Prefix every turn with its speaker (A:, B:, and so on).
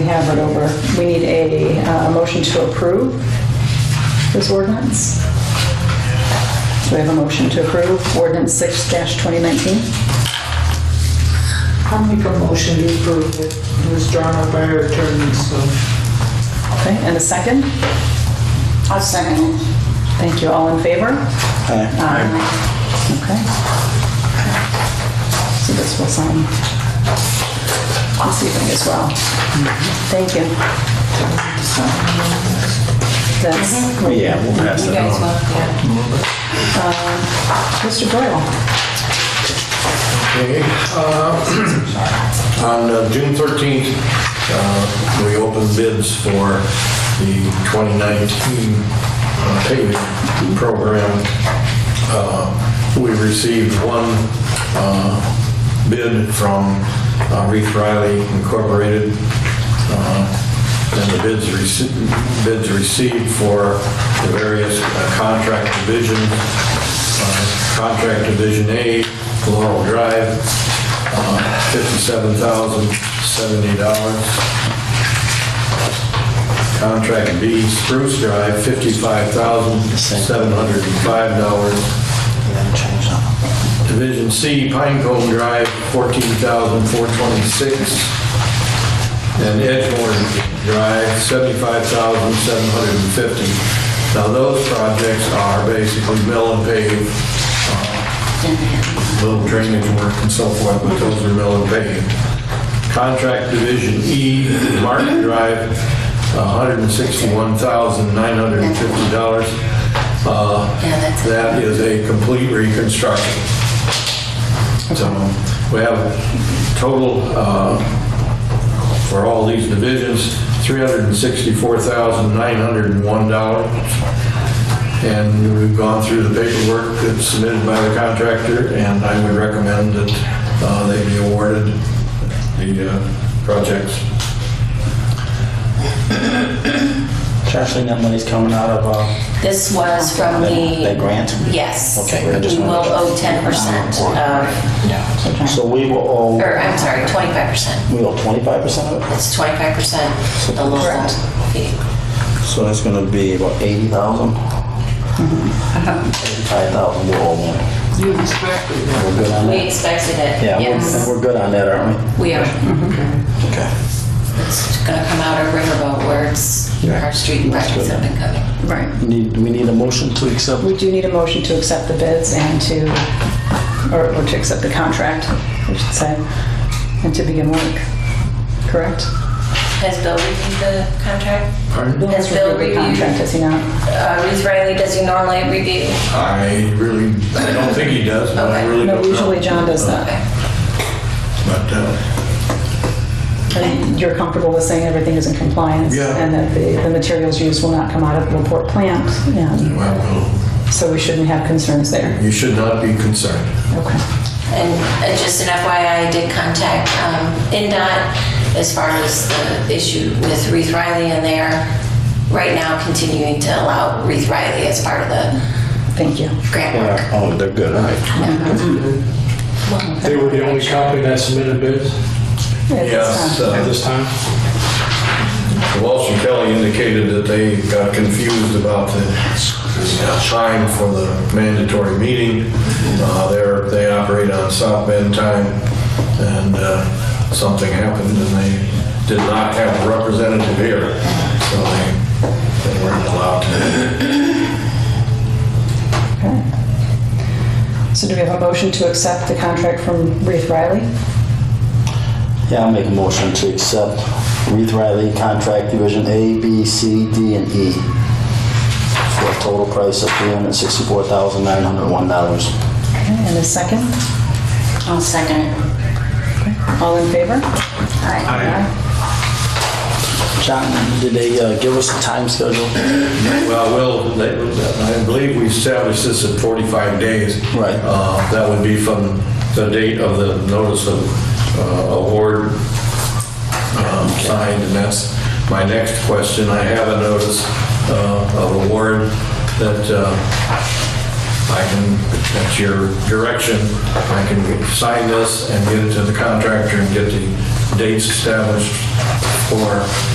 A: Havard over. We need a uh, motion to approve this ordinance. Do we have a motion to approve ordinance 6-2019?
B: I'll make a motion to approve it. It was drawn up by our attorney, so.
A: Okay, and a second? A second. Thank you. All in favor? Aye. Okay. So this will sign this evening as well. Thank you. That's,
C: Yeah, we'll pass that on.
A: Uh, Mr. Doyle.
D: Okay, uh, On uh, June 13th, uh, we opened bids for the 2019 uh, paving program. Uh, We received one uh, bid from uh, Reef Riley Incorporated. uh, and the bids received, bids received for the various uh, contract divisions. Uh, Contract Division A, Laurel Drive, uh, $57,070. Contract B, Spruce Drive, $55,705. Division C, Pinecone Drive, 14426 and Edgemore Drive, seventy-five thousand, seven hundred and fifty. Now, those projects are basically mill and pave, uh, little drainage work and so forth, but those are mill and pave. Contract Division E, Martin Drive, hundred and sixty-one thousand, nine hundred and fifty dollars. Uh, That is a complete reconstruction. So we have total uh, for all these divisions, $364,901. And we've gone through the paperwork that's submitted by the contractor, and I would recommend that uh, they be awarded the uh, projects.
E: Actually, that money's coming out of, uh,
F: This was from the...
E: That grant?
F: Yes.
E: Okay, I just
F: We will
E: wanted to-
F: owe 10% of,
E: so we will owe,
F: or I'm sorry, 25%.
E: we owe twenty-five percent of it?
F: It's 25% the local
A: Correct.
F: fee.
E: So that's gonna be about eighty thousand? Eighty-five thousand, we'll owe them.
B: You expected that.
E: We're good on
F: We
E: that?
F: expected it,
E: Yeah,
F: yes.
E: we're, we're good on that, aren't we?
F: We are.
E: Okay.
F: It's going to come out of Riverboat where it's, our street and projects have been coming.
A: Right.
E: Need, do we need a motion to accept?
A: We do need a motion to accept the bids and to, or or to accept the contract, we should say, and to begin work, correct?
F: Has Bill reviewed the contract?
D: Pardon?
F: Has Bill reviewed,
A: Contract, is he not?
F: uh, Ruth Riley, does he normally review?
D: I really, I don't think he does, but I
F: Okay.
D: really
A: No,
D: don't know.
A: usually John does that.
F: Okay.
D: But, uh,
A: And you're comfortable with saying everything is in compliance?
D: Yeah.
A: And that the, the materials used will not come out of the Laporte plant? And
D: well,
A: so we shouldn't have concerns there?
D: you should not be concerned.
A: Okay.
F: And uh, just an FYI, I did contact um, NDOT as far as the issue with Reeve Riley, and they are right now continuing to allow Reeve Riley as part of the
A: Thank you.
F: grant work.
E: Yeah, oh, they're good, all right.
G: They were the only company that submitted bids
D: Yes,
A: It's, uh,
G: at
D: uh,
G: this time?
D: Walsh and Kelly indicated that they got confused about the uh, time for the mandatory meeting. Uh, They're, they operate on South Bend time, and uh, something happened, and they did not have a representative here, so they, they weren't allowed to.
A: So do we have a motion to accept the contract from Reeve Riley?
E: Yeah, I'll make a motion to accept Reeve Riley Contract Division A, B, C, D, and E for a total price of $364,901.
A: Okay, And a second?
F: I'll second it.
A: All in favor?
E: John, did they uh, give us a time schedule?
D: Well, Will, they- I believe we established this at 45 days.
E: Right.
D: Uh, That would be from the date of the notice of uh, award um, signed, and that's my next question. I have a notice uh, of award that uh, I can, at your direction, I can sign this and get it to the contractor and get the dates established for